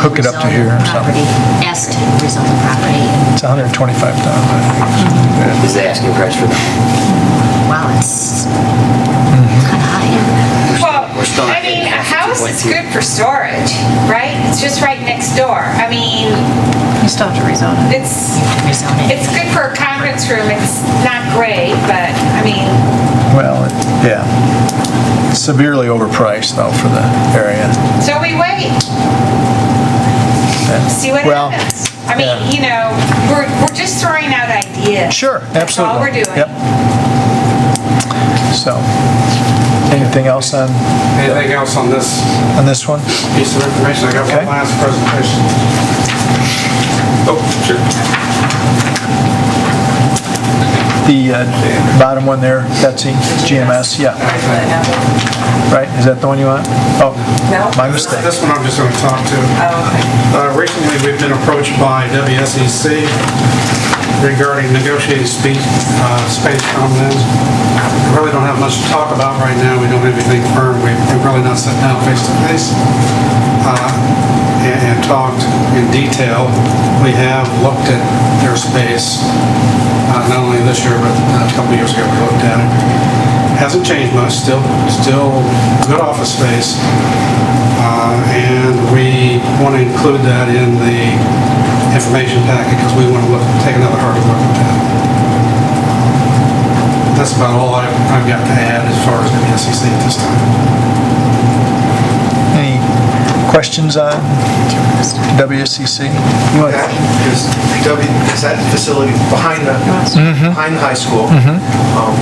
hook it up to here or something. Property, Asked to rezone the property. It's 125,000. I think. Is the asking price for that? Wow, it's Mm-hmm. kind of high. Well, We're still not I mean, getting a back to house is 2.2. good for storage, right? It's just right next door. I mean, You still have to rezone it. it's, Rezone it. it's good for a conference room. It's not great, but, I mean, Well, it- yeah. Severely overpriced though for the area. so we wait. See what Well, happens. I mean, yeah. you know, we're, we're just throwing out ideas. Sure, That's all absolutely. we're doing. Yep. So, anything else on, Anything else on this on this one? piece of information? I got Okay. one last presentation. Oh, sure. The uh, bottom one there, Betsy, GMS, yeah, right? Is that the one you want? Oh, my This- mistake. Oh, This one I'm just going to talk to. Uh, Recently, we've been approached by WSEC regarding negotiated speech, uh, space comments. We Really don't have much to talk about right now. We don't have anything firm. We- We've really not sat down face to face uh, and and talked in detail. We have looked at their space, uh, not only this year, but uh, a couple years ago, we looked at it. Hasn't changed much, still, still good office space. Uh, And we want to include that in the information packet because we want to look, take another hard look at that. That's about all I've I've got to add as far as the SEC at this time. Any questions on WSCC? You want- Is W, is that facility behind the, Mm-hmm. behind the high school? um,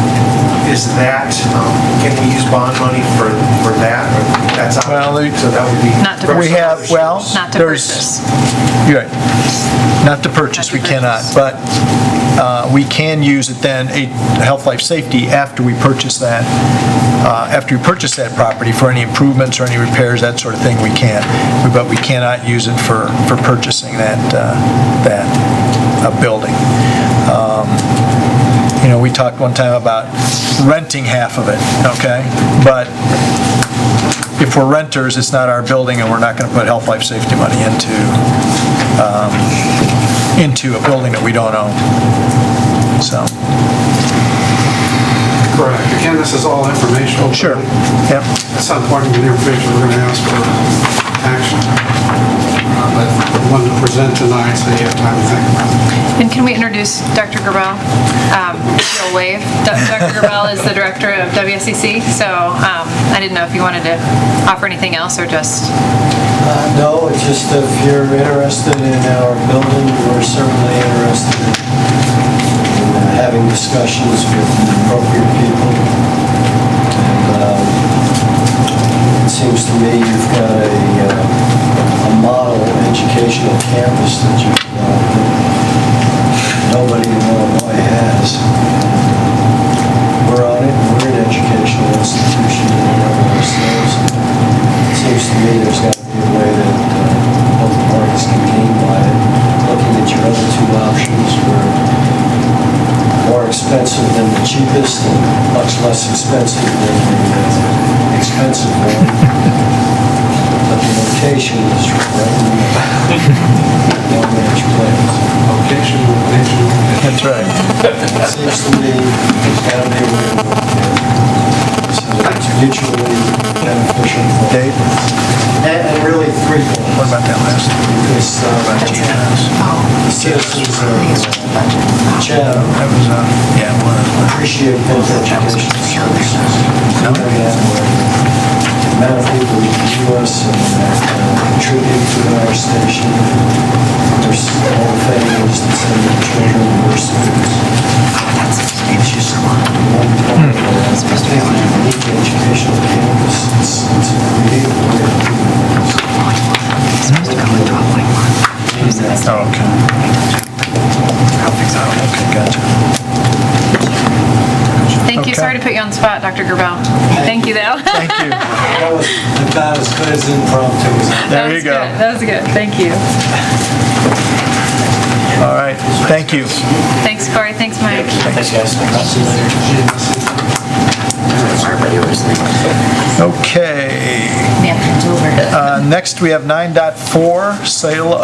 Is that, um, can we use bond money for, for that? Or That's out, Well, they- so that would be. Not to We have, well, Not to there's- purchase. You're right. Not to purchase, we cannot, but uh, we can use it then, a health life safety, after we purchase that, uh, after we purchase that property for any improvements or any repairs, that sort of thing, we can. But we cannot use it for, for purchasing that, uh, that uh, building. Um, You know, we talked one time about renting half of it, okay? But if we're renters, it's not our building, and we're not going to put health life safety money into, um, into a building that we don't own. So, Correct. Again, this is all informational. sure, yep, At some point in the near future, we're going to ask for action. Uh, But the one to present tonight, so you have time to think about it. And can we introduce Dr. Gerbel? Um, You'll wave. Do- Dr. Gerbel is the director of WSCC, so um, I didn't know if you wanted to offer anything else or just, Uh, No, it's just if you're interested in our building, we're certainly interested in uh, having discussions with the appropriate people. And um, It seems to me you've got a, uh, a model educational campus that you've developed that nobody in Illinois has. We're on it, we're an educational institution in and of ourselves. It Seems to me there's got to be a way that uh, both parties can gain by it. Looking at your other two options were more expensive than the cheapest and much less expensive than the uh, expensive one. But the location is right in the Long Ranch Place. Location, location, location. that's right. It seems to me there's got to be a way to work it. So that it's mutually beneficial. for- Dave, And and really three what things. about that last? It's About uh, GMS? the citizens of Chatham That was, uh, yeah, one of appreciate both education services. No. Very that way. The amount of people who view us and uh, contribute to our station. There's all families that send their children to our schools. It's just one part of it. It's supposed to be a unique educational campus. It's it's a creative way of doing things. the, oh, okay. Oh, Okay, gotcha. thank you, sorry Okay. to put you on the spot, Dr. Gerbel. Thank you, though. Thank you. That was about as good as impromptu as I There That you was go. good. That was good, thank you. All right, thank you. Thanks, Corey, thanks, Mike. Thanks, guys. Barbara, you were saying. Okay, Okay. Napkins over. Uh, Next, we have 9.4, sale